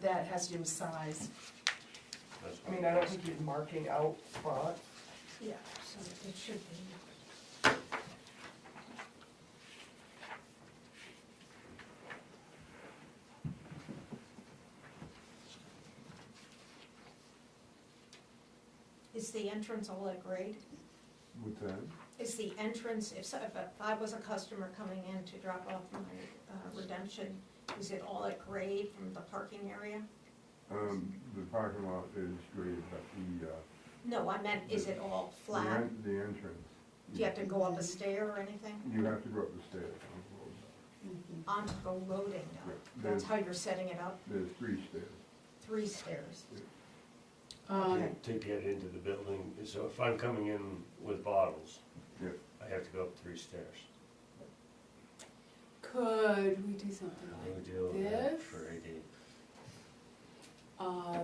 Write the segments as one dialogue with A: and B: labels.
A: that has to do with size.
B: That's
C: I mean, I don't think you're marking out font.
A: Yeah, so it should be.
D: Is the entrance all at grade?
E: With that,
D: Is the entrance, if, so- if I was a customer coming in to drop off my uh, redemption, is it all at grade from the parking area?
E: um, the parking lot is great, but the, uh.
D: No, I meant, is it all
E: the
D: flat?
E: en- The entrance.
D: Do you have to go up a stair or anything?
E: You have to go up the stairs. um,
D: Onto the loading dock?
E: Yeah.
D: That's how you're setting it up,
E: There's three stairs.
D: three stairs?
A: Um,
B: To to get into the building, so if I'm coming in with bottles,
E: Yeah.
B: I have to go up three stairs.
F: Could we do something
B: How do
F: like,
B: we deal with that
F: This?
B: for AD?
F: uh,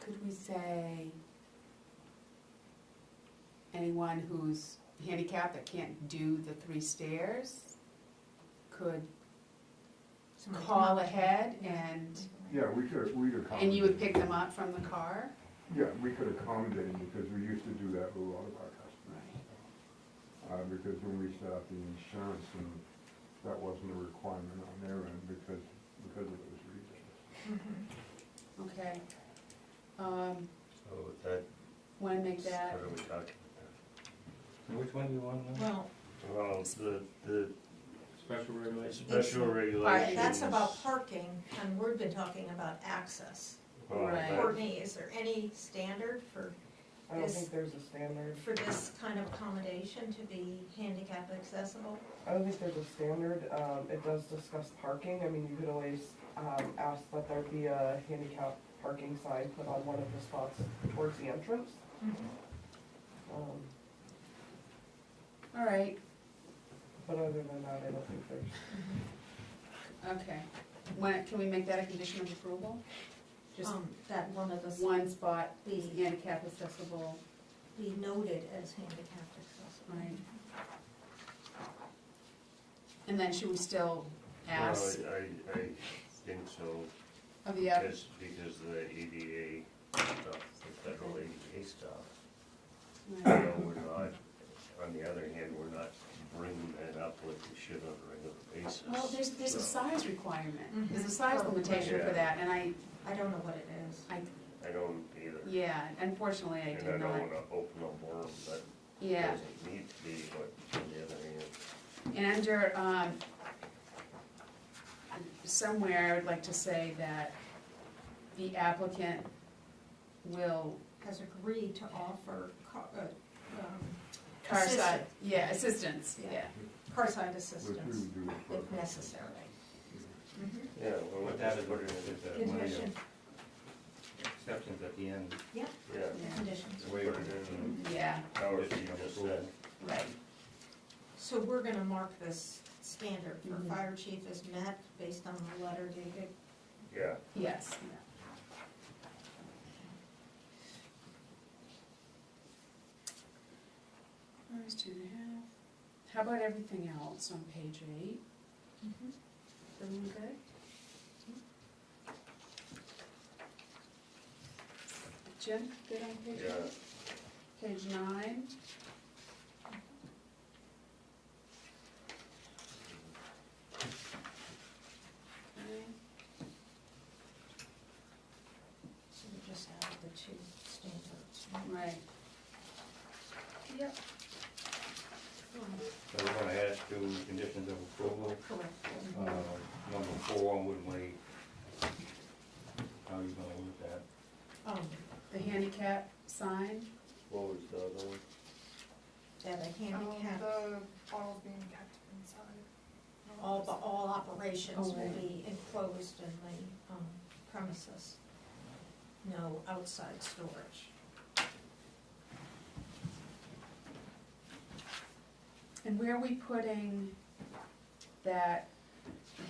F: could we say anyone who's handicapped that can't do the three stairs could
D: Somebody's
F: call
D: not-
F: ahead and,
E: Yeah, we could, we'd accommodate.
F: and you would pick them up from the car?
E: Yeah, we could accommodate because we used to do that with a lot of our customers.
F: Right.
E: Uh, because when we set up the insurance and that wasn't a requirement on their end because, because of those reasons.
D: Mm-hmm.
F: Okay. Um,
B: So with that,
F: wanna make
B: how
F: that,
B: do we calculate
G: Which one do you want now?
A: well,
B: that? Well, the, the
G: Special regulation?
B: special
D: All
B: regulations.
D: right, that's about parking, and we've been talking about access.
B: Well,
F: Right.
B: that-
D: Courtney, is there any standard for
C: I don't
D: Yes.
C: think there's a standard,
D: for this kind of accommodation to be handicap accessible?
C: I don't think there's a standard, um, it does discuss parking, I mean, you could always, um, ask that there be a handicap parking sign put on one of the spots towards the entrance.
D: Mm-hmm.
C: Um,
F: all right,
C: but other than that, I don't think there's.
F: okay. When, can we make that a condition of approval? Just
D: Um, that one of us
F: one spot
D: be,
F: handicap accessible,
D: be noted as handicapped accessible.
F: right? And then should we still
B: Well,
F: ask
B: I, I think so,
F: of the other,
B: because, because the ADA stuff, the federal ADA stuff, you
F: right,
B: know, we're not, on the other hand, we're not bringing that up like we should on a regular basis.
F: well, there's, there's a
B: so
F: size requirement, there's a
D: Mhm.
F: size limitation for
B: Yeah.
F: that, and I,
D: I don't know what it is.
F: I,
B: I don't either,
F: yeah, unfortunately, I
B: and I
F: did
B: don't
F: not,
B: wanna open a worm that
F: yeah.
B: doesn't need to be, but on the other hand,
F: And under, um, somewhere, I would like to say that the applicant will
D: Has agreed to offer car, uh, um,
F: car side,
D: assistance-
F: yeah, assistance,
D: Yeah.
F: yeah.
D: Car-side
E: Which we
D: assistance,
E: would do. for-
D: if necessary. Mhm.
B: yeah, well,
G: What that
B: that's
G: is,
B: what
G: what
B: it
G: is
B: is,
G: it, uh, one of your
D: Condition,
G: exceptions at the end?
B: yeah.
F: Yeah.
D: conditions.
B: Just put it in,
F: Yeah,
B: Howard, you just said,
F: right,
D: So we're gonna mark this standard for
F: Mhm.
D: fire chief as met based on the letter dated
B: yeah,
F: yes. Where's two and a half? How about everything else on page eight?
D: Mhm.
F: Everyone good? Jim, good on page eight?
B: yeah.
F: Page nine. Okay.
D: So we just added the two standards. right?
F: Right. Yep.
G: So we're gonna add two conditions of approval,
D: Correct.
G: uh, number four would wait. How are you gonna work that?
D: Um,
F: The handicap sign.
B: What was the other one?
D: that a handicap,
C: bottles being kept inside.
D: all, the- all operations
F: Oh,
D: will
F: right.
D: be enclosed in the um, premises. No outside storage.
F: And where are we putting that,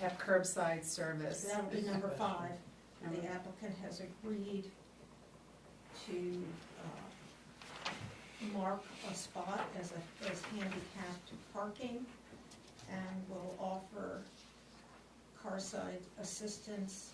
F: have curbside service?
D: So that'll be number five.
F: Number-
D: The applicant has agreed to uh, mark a spot as a, as handicapped parking and will offer car-side assistance